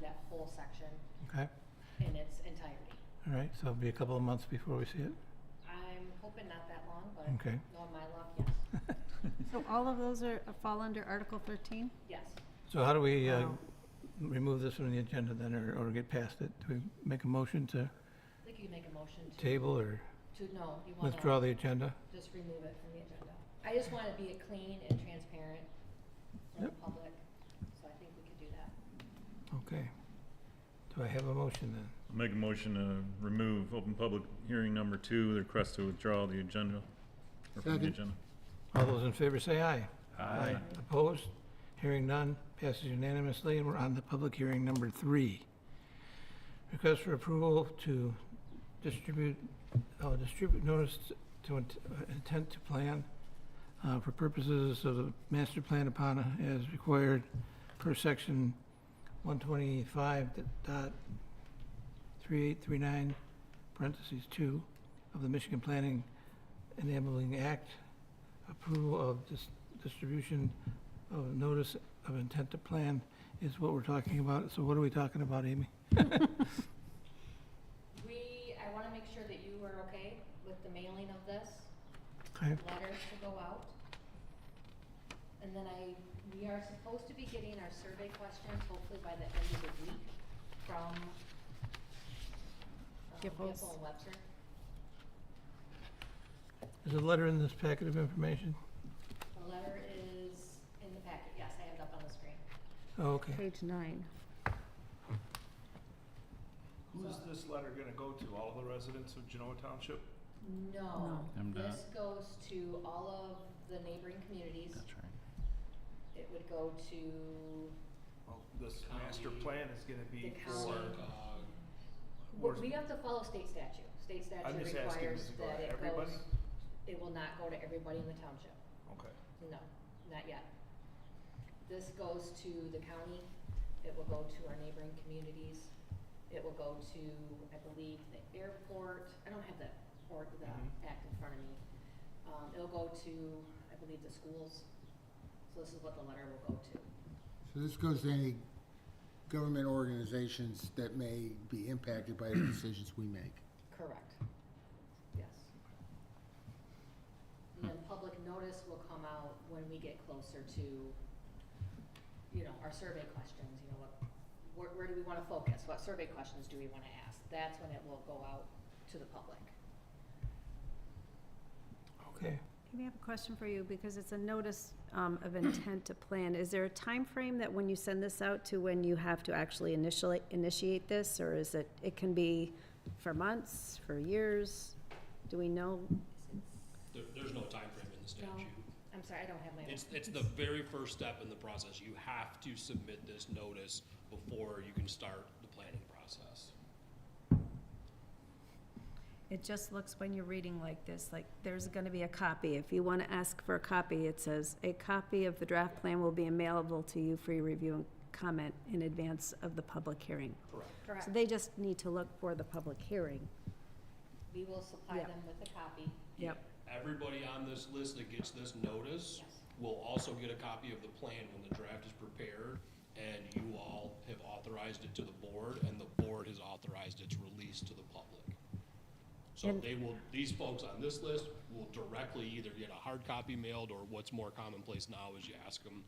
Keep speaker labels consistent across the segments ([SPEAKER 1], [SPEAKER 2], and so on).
[SPEAKER 1] that whole section
[SPEAKER 2] Okay,
[SPEAKER 1] in its entirety.
[SPEAKER 2] all right, so it'll be a couple of months before we see it?
[SPEAKER 1] I'm hoping not that long, but
[SPEAKER 2] Okay.
[SPEAKER 1] knowing my luck, yes,
[SPEAKER 3] So all of those are, fall under Article thirteen?
[SPEAKER 1] yes.
[SPEAKER 2] So how do we uh,
[SPEAKER 3] Wow.
[SPEAKER 2] remove this from the agenda then, or or get past it? Do we make a motion to
[SPEAKER 1] I think you can make a motion to,
[SPEAKER 2] table or
[SPEAKER 1] to, no, you wanna
[SPEAKER 2] withdraw the agenda?
[SPEAKER 1] just remove it from the agenda. I just wanna be clean and transparent for the public, so I think we could do that.
[SPEAKER 2] Okay. Do I have a motion then?
[SPEAKER 4] Make a motion to remove open public hearing number two, the request to withdraw the agenda. or from the
[SPEAKER 5] Second.
[SPEAKER 4] agenda.
[SPEAKER 2] All those in favor say aye. Opposed? Hearing none, passes unanimously, and we're on to public hearing number three. Request for approval to distribute, oh, distribute notice to int- uh, intent to plan uh, for purposes of the master plan upon as required per section 125 dot 3839 parentheses 2 of the Michigan Planning Enabling Act, approval of dis- distribution of notice of intent to plan is what we're talking about. So what are we talking about, Amy?
[SPEAKER 1] We, I wanna make sure that you are okay with the mailing of this.
[SPEAKER 2] Okay,
[SPEAKER 1] letters to go out. And then I, we are supposed to be getting our survey questions hopefully by the end of the week from um,
[SPEAKER 3] Giffords.
[SPEAKER 1] Giffords and Webster.
[SPEAKER 2] Is a letter in this packet of information?
[SPEAKER 1] The letter is in the packet, yes, I have it up on the screen.
[SPEAKER 2] Oh, okay.
[SPEAKER 3] Page nine.
[SPEAKER 6] Who is this letter gonna go to? All the residents of Genoa Township?
[SPEAKER 1] No,
[SPEAKER 4] I'm not-
[SPEAKER 1] this goes to all of the neighboring communities.
[SPEAKER 4] That's right.
[SPEAKER 1] It would go to,
[SPEAKER 6] Well, this master plan is gonna
[SPEAKER 1] The
[SPEAKER 6] be
[SPEAKER 1] county.
[SPEAKER 6] for,
[SPEAKER 1] we-
[SPEAKER 6] Where's-
[SPEAKER 1] we have to follow state statute. State
[SPEAKER 6] I'm
[SPEAKER 1] statute
[SPEAKER 6] just asking,
[SPEAKER 1] requires
[SPEAKER 6] does it go
[SPEAKER 1] that
[SPEAKER 6] to
[SPEAKER 1] it goes,
[SPEAKER 6] everybody?
[SPEAKER 1] it will not go to everybody in the township.
[SPEAKER 6] Okay.
[SPEAKER 1] No, not yet. This goes to the county, it will go to our neighboring communities, it will go to, I believe, the airport, I don't have the, or the
[SPEAKER 6] Mhm.
[SPEAKER 1] act in front of me. Um, it'll go to, I believe, the schools, so this is what the letter will go to.
[SPEAKER 5] So this goes to any government organizations that may be impacted by the decisions we make.
[SPEAKER 1] Correct. Yes.
[SPEAKER 7] Hmm.
[SPEAKER 1] And then public notice will come out when we get closer to, you know, our survey questions, you know, what, where, where do we wanna focus? What survey questions do we wanna ask? That's when it will go out to the public.
[SPEAKER 2] Okay.
[SPEAKER 3] Amy, I have a question for you, because it's a notice um, of intent to plan. Is there a time frame that when you send this out to when you have to actually initially, initiate this? Or is it, it can be for months, for years? Do we know?
[SPEAKER 7] There, there's no time frame in the
[SPEAKER 1] No.
[SPEAKER 7] statute.
[SPEAKER 1] I'm sorry, I don't have my.
[SPEAKER 7] It's, it's the very first step in the process. You have to submit this notice before you can start the planning process.
[SPEAKER 3] It just looks when you're reading like this, like there's gonna be a copy. If you wanna ask for a copy, it says, "A copy of the draft plan will be available to you for your review and comment in advance of the public hearing."
[SPEAKER 1] Correct.
[SPEAKER 3] So they just need to look for the public hearing.
[SPEAKER 1] We will supply
[SPEAKER 3] Yeah.
[SPEAKER 1] them with a copy.
[SPEAKER 3] Yep.
[SPEAKER 7] Everybody on this list that gets this notice
[SPEAKER 1] Yes.
[SPEAKER 7] will also get a copy of the plan when the draft is prepared, and you all have authorized it to the board, and the board has authorized its release to the public. So
[SPEAKER 3] And-
[SPEAKER 7] they will, these folks on this list will directly either get a hard copy mailed, or what's more commonplace now is you ask them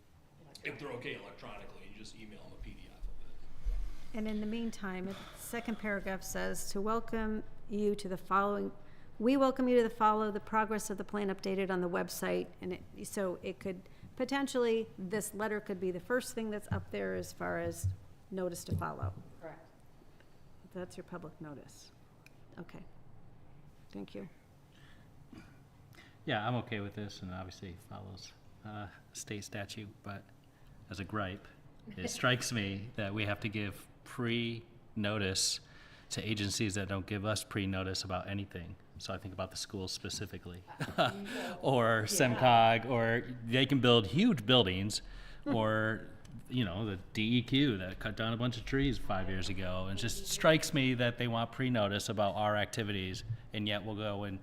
[SPEAKER 7] if they're okay electronically, you just email them a PDF of it.
[SPEAKER 3] And in the meantime, it- second paragraph says, "To welcome you to the following, we welcome you to the follow the progress of the plan updated on the website." And it, so it could, potentially, this letter could be the first thing that's up there as far as notice to follow.
[SPEAKER 1] Correct.
[SPEAKER 3] That's your public notice. Okay. Thank you.
[SPEAKER 8] Yeah, I'm okay with this, and obviously it follows uh, state statute, but as a gripe, it strikes me that we have to give pre-notice to agencies that don't give us pre-notice about anything. So I think about the schools specifically, or SEMCOG, or they can build huge buildings, or, you know, the DEQ that cut down a bunch of trees five years ago. And it just strikes me that they want pre-notice about our activities, and yet we'll go and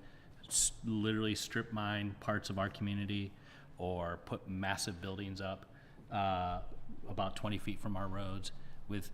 [SPEAKER 8] s- literally strip mine parts of our community or put massive buildings up uh, about 20 feet from our roads with